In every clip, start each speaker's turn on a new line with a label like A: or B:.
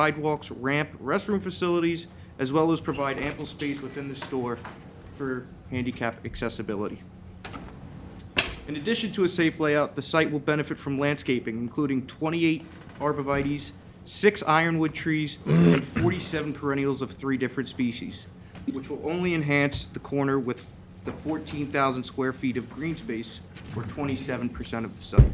A: sidewalks, ramp, restroom facilities, as well as provide ample space within the store for handicap accessibility. In addition to a safe layout, the site will benefit from landscaping, including 28 arborvitae's, six ironwood trees, and 47 perennials of three different species, which will only enhance the corner with the 14,000 square feet of green space, or 27% of the site.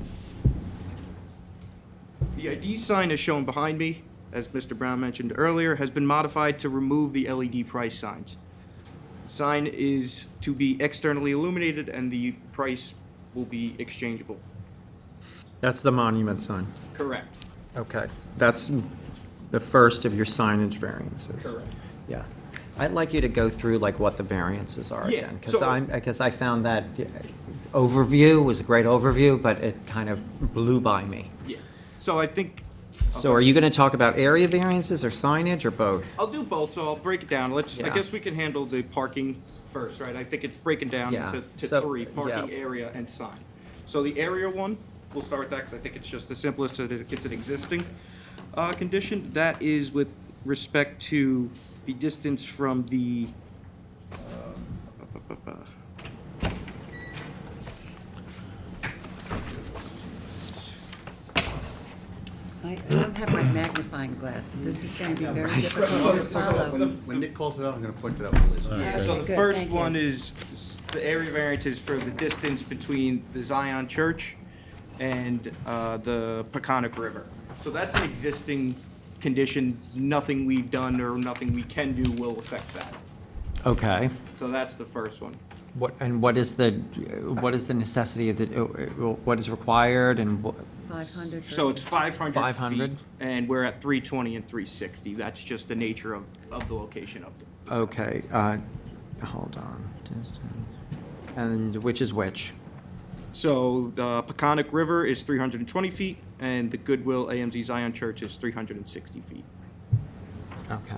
A: The ID sign as shown behind me, as Mr. Brown mentioned earlier, has been modified to remove the LED price signs. The Sign is to be externally illuminated and the price will be exchangeable.
B: That's the monument sign.
A: Correct.
B: Okay. That's the first of your signage variances.
A: Correct.
B: Yeah. I'd like you to go through like what the variances are
A: Yeah,
B: again. Because
A: so-
B: I'm, because I found that overview was a great overview, but it kind of blew by me.
A: Yeah. So I think,
B: So are you going to talk about area variances or signage or both?
A: I'll do both, so I'll break it down. Let's, I
B: Yeah.
A: guess we can handle the parking first, right? I think it's breaking down
B: Yeah,
A: to, to
B: so-
A: three, parking
B: yeah.
A: area and sign. So the area one, we'll start with that because I think it's just the simplest, it- it's an existing uh, condition. That is with respect to the distance from the, um,
C: I I don't have my magnifying glass. This is going to be very difficult to follow.
D: When when Nick calls it out, I'm gonna point it out for Liz.
A: So
C: Good,
A: the first
C: thank you.
A: one is, the area variance is for the distance between the Zion Church and uh, the Peconic River. So that's an existing condition, nothing we've done or nothing we can do will affect that.
B: Okay.
A: So that's the first one.
B: What, and what is the, what is the necessity of the, uh, what is required and what?
C: 500
A: So it's
C: versus,
A: 500 feet.
B: 500?
A: And we're at 320 and 360, that's just the nature of, of the location of them.
B: Okay, uh, hold on. And which is which?
A: So the Peconic River is 320 feet, and the Goodwill AMZ Zion Church is 360 feet.
B: Okay.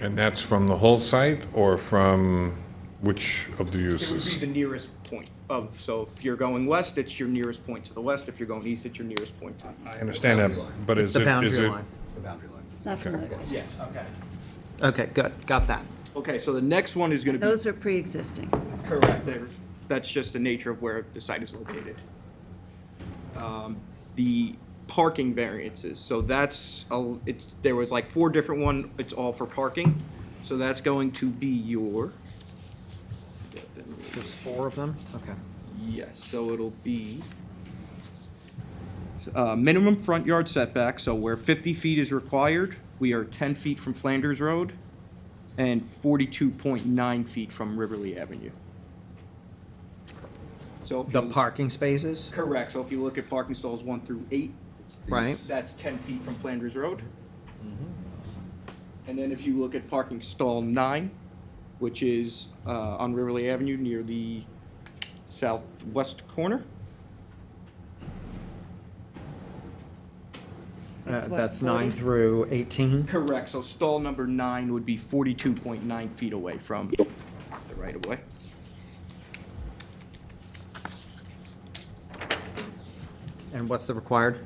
E: And that's from the whole site or from which of the
A: It would be
E: uses?
A: the nearest point of, so if you're going west, it's your nearest point to the west. If you're going east, it's your nearest point to the
E: I understand that, but
B: It's
E: is
B: the
E: it, is
B: boundary
E: it?
B: line.
D: The boundary line.
C: it's not from the,
A: east. Yes, okay.
B: Okay, good, got that.
A: Okay, so the next one is gonna be.
C: those are pre-existing.
A: Correct. There- That's just the nature of where the site is located. Um, The parking variances, so that's, a- it's, there was like four different one, it's all for parking. So that's going to be your.
B: There's four of them? Okay.
A: Yes, so it'll be uh, minimum front yard setback, so where 50 feet is required, we are 10 feet from Flanders Road and 42.9 feet from Riverly Avenue. So if
B: The
A: you-
B: parking spaces?
A: Correct, so if you look at parking stalls 1 through 8,
B: Right.
A: that's 10 feet from Flanders Road. And then if you look at parking stall 9, which is uh, on Riverly Avenue near the southwest corner,
B: Uh,
C: That's what,
B: Uh, That's nine
C: 40?
B: through 18?
A: Correct, so stall number nine would be forty-two point nine feet away from the right-of-way.
B: And what's the required?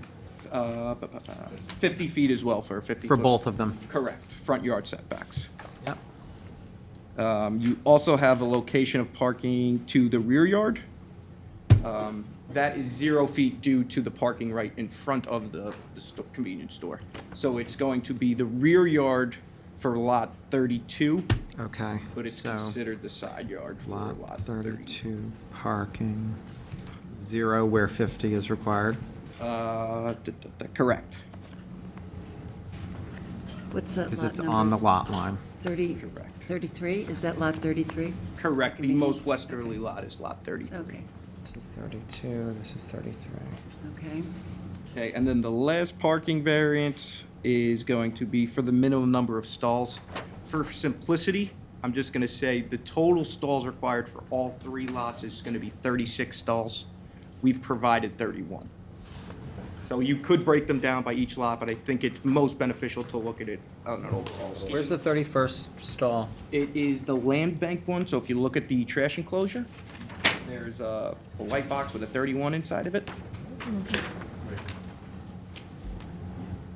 A: Uh, bu- bu- bu- Fifty feet as well for a fifty.
B: For
A: foot-
B: both of them?
A: Correct, front yard setbacks.
B: Yep.
A: Um, You also have a location of parking to the rear yard. Um, That is zero feet due to the parking right in front of the the sto- convenience store. So it's going to be the rear yard for lot thirty-two,
B: Okay,
A: but it's
B: so
A: considered the side yard for
B: lot
A: lot thirty-two.
B: 32, parking, zero where 50 is required.
A: Uh, d- d- d- Correct.
C: What's that
B: Because it's
C: lot
B: on the
C: number?
B: lot line.
C: 30,
A: Correct.
C: 33? Is that lot 33?
A: Correct. The
C: Convenience,
A: most
C: okay.
A: westerly lot is lot 33.
C: Okay,
B: This is 32, this is 33.
C: okay.
A: Okay, and then the last parking variance is going to be for the minimum number of stalls. For simplicity, I'm just going to say the total stalls required for all three lots is going to be 36 stalls. We've provided 31. So you could break them down by each lot, but I think it's most beneficial to look at it on an overall scheme.
B: Where's the 31st stall?
A: It is the land bank one, so if you look at the trash enclosure, there's a a white box with a 31 inside of it.